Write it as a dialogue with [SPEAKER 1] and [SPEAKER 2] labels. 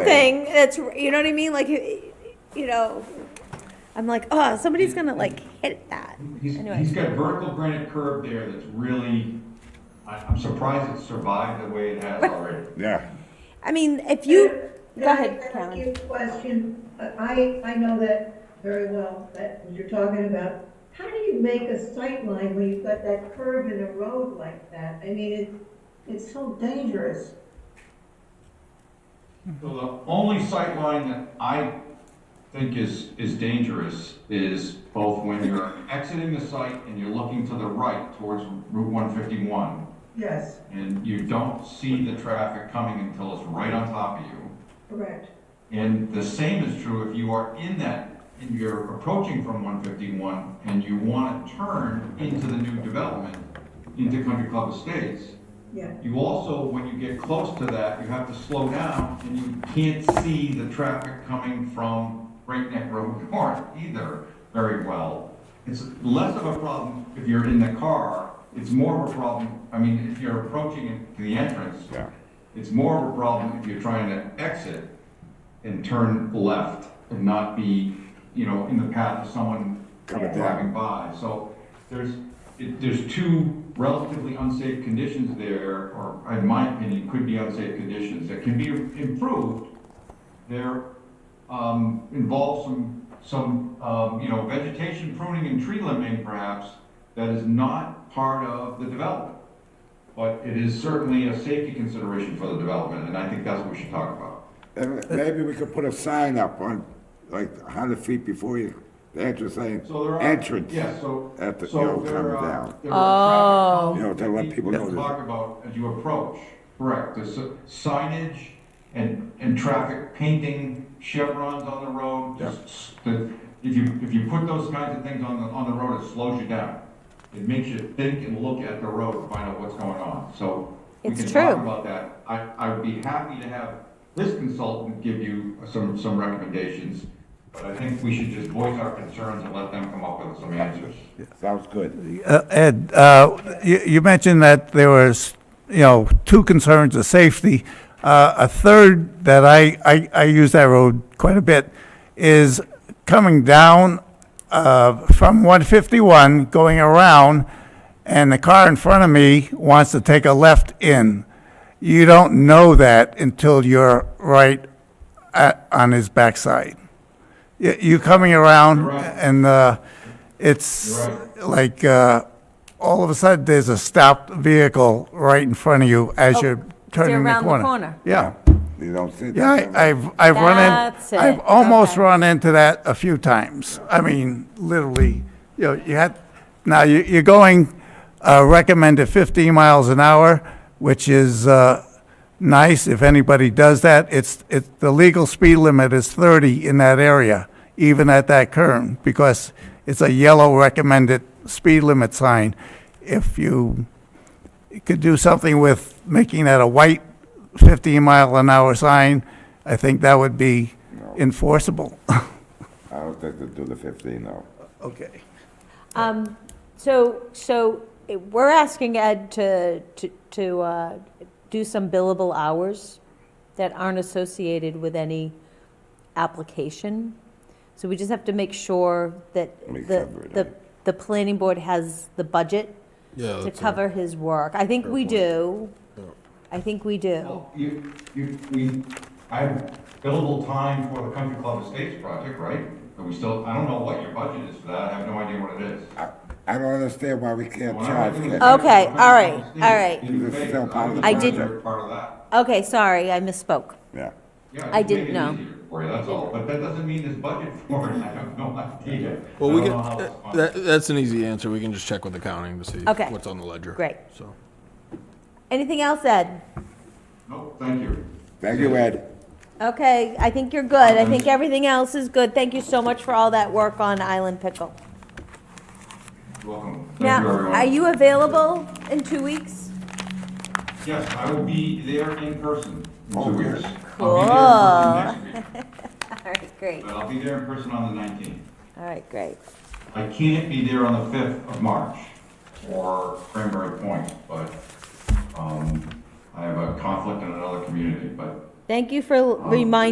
[SPEAKER 1] thing that's you know what I mean. Like you know, I'm like, oh, somebody's gonna like hit that.
[SPEAKER 2] He's,
[SPEAKER 1] Anyway.
[SPEAKER 2] he's got vertical granite curb there that's really, I, I'm surprised it survived the way it has already.
[SPEAKER 3] Yeah.
[SPEAKER 1] I mean, if you
[SPEAKER 4] Can
[SPEAKER 1] go
[SPEAKER 4] I
[SPEAKER 1] ahead,
[SPEAKER 4] ask
[SPEAKER 1] Karen.
[SPEAKER 4] you a Question, I, I know that very well, that you're talking about. How do you make a sight line when you've got that curve in a road like that? I mean, it, it's so dangerous.
[SPEAKER 2] So the only sight line that I think is, is dangerous is both when you're exiting the site and you're looking to the right towards Route one fifty-one,
[SPEAKER 4] Yes,
[SPEAKER 2] and you don't see the traffic coming until it's right on top of you.
[SPEAKER 4] correct.
[SPEAKER 2] And the same is true if you are in that, and you're approaching from one fifty-one and you want to turn into the new development, into Country Club Estates.
[SPEAKER 4] Yeah.
[SPEAKER 2] You also, when you get close to that, you have to slow down and you can't see the traffic coming from Great Neck Road North either very well. It's less of a problem if you're in the car, it's more of a problem, I mean, if you're approaching it to the entrance,
[SPEAKER 3] Yeah.
[SPEAKER 2] it's more of a problem if you're trying to exit and turn left and not be, you know, in the path of someone
[SPEAKER 3] Coming
[SPEAKER 2] driving by. So there's, it- there's two relatively unsafe conditions there, or in my opinion, could be unsafe conditions that can be improved. They're, um, involve some, some, um, you know, vegetation pruning and tree limbing perhaps that is not part of the development. But it is certainly a safety consideration for the development, and I think that's what we should talk about.
[SPEAKER 3] And maybe we could put a sign up on, like, a hundred feet before you, the entrance saying,
[SPEAKER 2] So there are.
[SPEAKER 3] entrance.
[SPEAKER 2] Yeah, so.
[SPEAKER 3] At the-
[SPEAKER 2] so
[SPEAKER 3] you know,
[SPEAKER 2] there uh,
[SPEAKER 3] coming
[SPEAKER 2] are-
[SPEAKER 3] down.
[SPEAKER 2] there are
[SPEAKER 3] Oh.
[SPEAKER 2] traffic
[SPEAKER 3] You know, to let
[SPEAKER 2] that
[SPEAKER 3] people
[SPEAKER 2] we
[SPEAKER 3] know that-
[SPEAKER 2] Talk about as you approach, correct, there's a signage and, and traffic painting chevrons on the road. Just the- If you, if you put those kinds of things on the, on the road, it slows you down. It makes you think and look at the road, to find out what's going on, so. we
[SPEAKER 1] It's
[SPEAKER 2] can
[SPEAKER 1] true.
[SPEAKER 2] talk about that. I, I would be happy to have this consultant give you some, some recommendations, but I think we should just voice our concerns and let them come up with some answers.
[SPEAKER 3] Sounds good.
[SPEAKER 5] Uh, Ed, uh, you you mentioned that there was, you know, two concerns of safety. Uh, A third that I, I- I use that road quite a bit is coming down uh, from 151, going around, and the car in front of me wants to take a left in. You don't know that until you're right at- on his backside. You- You coming around
[SPEAKER 2] You're right.
[SPEAKER 5] and uh, it's
[SPEAKER 2] You're
[SPEAKER 5] like, uh, all of a sudden, there's a stopped vehicle right in front of you as you're turning the
[SPEAKER 6] Oh, around the
[SPEAKER 5] corner.
[SPEAKER 6] corner.
[SPEAKER 5] Yeah,
[SPEAKER 3] You don't see
[SPEAKER 5] yeah,
[SPEAKER 3] that.
[SPEAKER 5] I- I've, I've run
[SPEAKER 6] That's
[SPEAKER 5] in,
[SPEAKER 6] it.
[SPEAKER 5] I've almost
[SPEAKER 6] Okay.
[SPEAKER 5] run into that a few times. I mean, literally, you know, you had, now you- you're going uh, recommended 15 miles an hour, which is uh, nice if anybody does that. It's, it's, the legal speed limit is 30 in that area, even at that curve, because it's a yellow recommended speed limit sign. If you could do something with making that a white 15 mile an hour sign, I think that would be enforceable.
[SPEAKER 3] I don't think they do the fifteen, though.
[SPEAKER 5] Okay.
[SPEAKER 6] Um, so, so eh, we're asking Ed to, to, to, uh, do some billable hours that aren't associated with any application. So we just have to make sure that
[SPEAKER 3] We
[SPEAKER 6] the,
[SPEAKER 3] cover it,
[SPEAKER 6] the,
[SPEAKER 3] right?
[SPEAKER 6] the planning board has the budget
[SPEAKER 7] Yeah,
[SPEAKER 6] to
[SPEAKER 7] that's a-
[SPEAKER 6] cover his work. I think we do. I think we do.
[SPEAKER 2] Well, you, you, we, I have billable time for the Country Club Estates project, right? But we still, I don't know what your budget is for that, I have no idea what it is.
[SPEAKER 3] I, I don't understand why we can't
[SPEAKER 2] When I
[SPEAKER 3] charge
[SPEAKER 2] went through
[SPEAKER 3] that.
[SPEAKER 2] the-
[SPEAKER 6] Okay, all right, all right.
[SPEAKER 2] Didn't
[SPEAKER 3] This is
[SPEAKER 2] pay,
[SPEAKER 3] still part of the
[SPEAKER 2] I was
[SPEAKER 6] I
[SPEAKER 2] aware
[SPEAKER 3] didn't-
[SPEAKER 2] Part of that.
[SPEAKER 6] Okay, sorry, I misspoke.
[SPEAKER 3] Yeah.
[SPEAKER 2] Yeah,
[SPEAKER 6] I
[SPEAKER 2] just
[SPEAKER 6] didn't
[SPEAKER 2] make it
[SPEAKER 6] know.
[SPEAKER 2] easier For you, that's all, but that doesn't mean there's budget for it, I have no idea.
[SPEAKER 7] Well, we
[SPEAKER 2] I
[SPEAKER 7] can,
[SPEAKER 2] don't know how it's
[SPEAKER 7] uh,
[SPEAKER 2] funded.
[SPEAKER 7] that, that's an easy answer. We can just check with accounting to see
[SPEAKER 6] Okay.
[SPEAKER 7] what's on the ledger.
[SPEAKER 6] Great.
[SPEAKER 7] So.
[SPEAKER 6] Anything else, Ed?
[SPEAKER 2] Nope, thank you.
[SPEAKER 3] Thank you, Ed.
[SPEAKER 6] Okay, I think you're good. I think everything else is good. Thank you so much for all that work on Island Pickle.
[SPEAKER 2] You're Welcome. Thank
[SPEAKER 6] Now,
[SPEAKER 2] you, everyone.
[SPEAKER 6] are you available in two weeks?
[SPEAKER 2] Yes, I will be there in person in
[SPEAKER 3] Oh,
[SPEAKER 2] two weeks. I'll be there in person next week,
[SPEAKER 6] All right, great.
[SPEAKER 2] But I'll be there in person on the nineteenth.
[SPEAKER 6] All right, great.
[SPEAKER 2] I can't be there on the 5th of March for Cranberry Point, but um, I have a conflict in another community, but
[SPEAKER 6] Thank you for reminding